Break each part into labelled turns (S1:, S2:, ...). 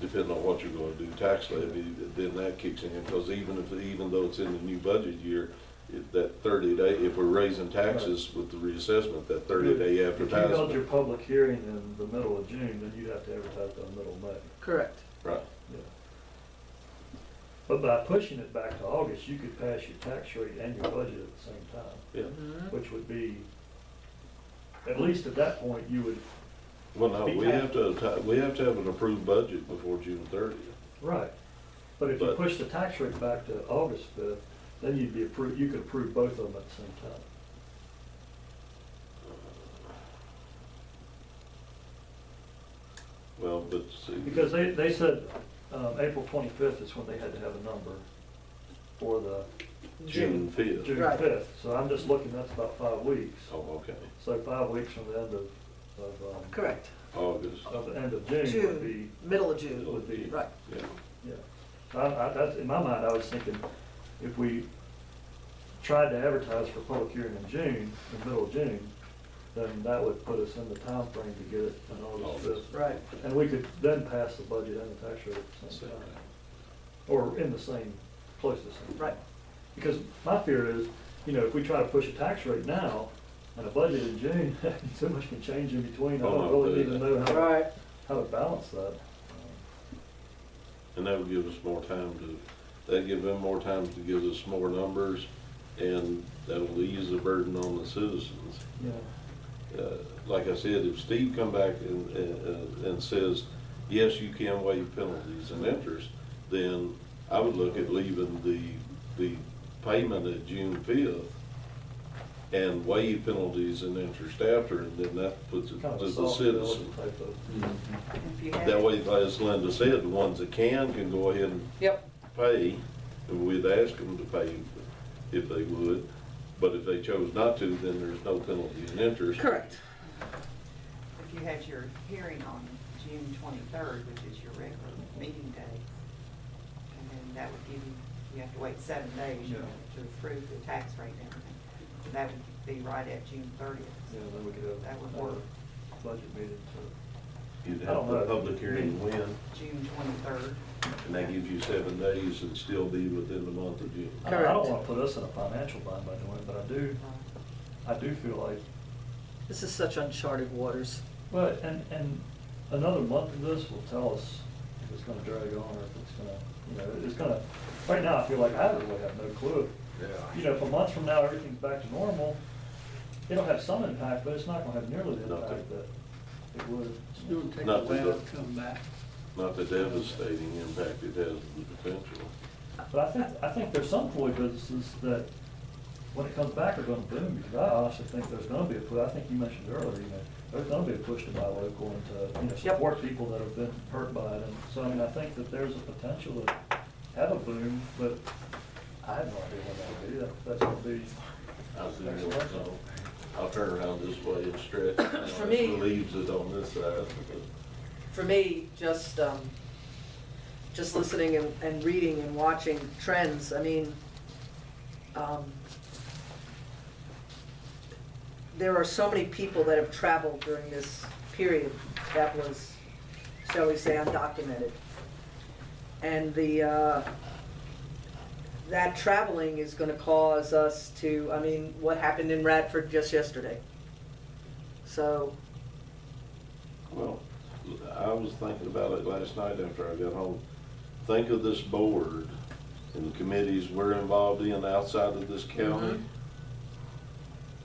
S1: depending on what you're gonna do tax levy, then that kicks in, because even if, even though it's in the new budget year, if that thirty day, if we're raising taxes with the reassessment, that thirty day
S2: If you held
S1: advertisement,
S2: your public hearing in the middle of June, then you have to advertise by middle of May.
S3: Correct.
S1: right?
S2: Yeah. But by pushing it back to August, you could pass your tax rate and your budget at the same time,
S1: Yeah,
S3: Mm-hmm.
S2: which would be, at least at that point, you would,
S1: well, no,
S2: Be
S1: we
S2: tax-
S1: have to, ti- we have to have an approved budget before June thirtieth.
S2: right. But if you
S1: But-
S2: push the tax rate back to August fifth, then you'd be approved, you could approve both of them at the same time.
S1: Well, but see.
S2: Because they, they said, um, April twenty-fifth is when they had to have a number for the
S1: June fifth.
S2: June
S3: Right.
S2: fifth, so I'm just looking, that's about five weeks.
S1: Oh, okay,
S2: So five weeks from the end of, of, um,
S3: Correct.
S1: August,
S2: of the end of June would be,
S3: June, middle of June,
S2: would be,
S3: right.
S1: yeah.
S2: yeah. I, I, that's, in my mind, I was thinking, if we tried to advertise for public hearing in June, in the middle of June, then that would put us in the time frame to get it in August
S1: August.
S2: fifth.
S3: Right.
S2: And we could then pass the budget and the tax rate at the
S1: So,
S2: same time, or in the same, close to the same. time.
S3: Right.
S2: Because my fear is, you know, if we try to push a tax rate now and a budget in June, so much can change in between. I
S1: Oh,
S2: don't
S1: no,
S2: really need to know how, to-
S3: Right.
S2: how to balance that.
S1: And that would give us more time to, that'd give them more time to give us more numbers, and that'll ease the burden on the citizens.
S2: Yeah,
S1: Uh, Like I said, if Steve come back and, and, and says, yes, you can waive penalties and interest, then I would look at leaving the, the payment at June fifth and waive penalties and interest after, and then that puts it
S2: kind
S1: to
S2: of a
S1: the
S2: soft
S1: citizen.
S2: bill type of.
S3: If you
S1: That
S3: have.
S1: way, as Linda said, the ones that can, can go ahead and
S3: Yep.
S1: pay, and we'd ask them to pay if they would, but if they chose not to, then there's no penalty and interest.
S3: Correct.
S4: If you had your hearing on June twenty-third, which is your regular meeting day, and then that would give you, you have to wait seven days you know, to approve the tax rate and everything. So That would be right at June thirtieth.
S2: Yeah, then we could have.
S4: That would work.
S2: uh, Budget meeting too.
S1: You'd
S2: I don't
S1: have the
S2: know.
S1: public hearing when,
S4: June twenty-third.
S1: and that gives you seven days and still be within the month of June.
S2: I- I don't
S3: Correct.
S2: want to put us in a financial bind by doing it, but I
S4: Uh,
S2: do, I do feel like,
S3: This is such uncharted waters.
S2: well, and, and another month of this will tell us if it's gonna drag on or if it's gonna, you know, it's gonna, right now, I feel like I really have no clue. you know, if a month from now, everything's back to normal, it'll have some impact, but it's not gonna have nearly the impact that it would.
S5: It'll take a
S1: Not
S5: while
S1: the-
S5: to come back.
S1: Not the devastating impact it has on the potential.
S2: But I think, I think there's some toy businesses that, when it comes back, are gonna boom, because I honestly think there's gonna be a push, I think you mentioned earlier, you know, there's gonna be a push to buy local and to, you know,
S3: Yep.
S2: support people that have been hurt by it, and so, I mean, I think that there's a potential to have a boom, but I have no idea when that'll be, That- that's gonna be,
S1: I see it, so I'll turn around this way and stretch.
S3: For me-
S1: It Leaves it on this side.
S3: For me, just, um, just listening and, and reading and watching trends, I mean, um, there are so many people that have traveled during this period that was, shall we say, undocumented. And the, uh, that traveling is gonna cause us to, I mean, what happened in Radford just yesterday? So,
S1: Well, I was thinking about it last night after I got home. Think of this board and the committees we're involved in outside of this county.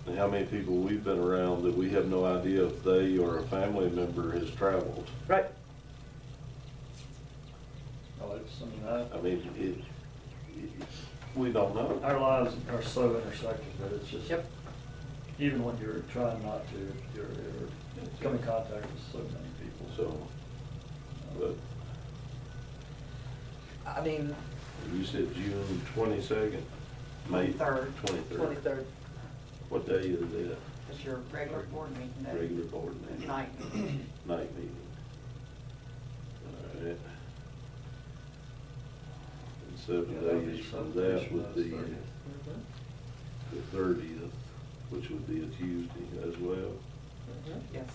S1: And how many people we've been around that we have no idea if they or a family member has traveled.
S3: right,
S2: oh, it's, I mean, I.
S1: I mean, it, it, we don't know.
S2: Our lives are so intersected that it's just,
S3: Yep.
S2: even when you're trying not to, you're, you're coming in contact with so many people.
S1: So,
S2: So,
S1: but
S3: I mean,
S1: you said June twenty-second, May.
S4: Third.
S1: Twenty-third.
S3: twenty-third.
S1: What day is that?
S4: That's your regular board meeting day.
S1: Regular board meeting.
S4: Night.
S1: night meeting. Alright. And
S2: Yeah,
S1: seven
S2: that'll be
S1: days from
S2: something
S1: that
S2: from
S1: would
S2: the
S1: be
S2: 30th.
S3: Mhm,
S1: the thirtieth, which would be a Tuesday as well.
S3: mhm.
S4: Yes.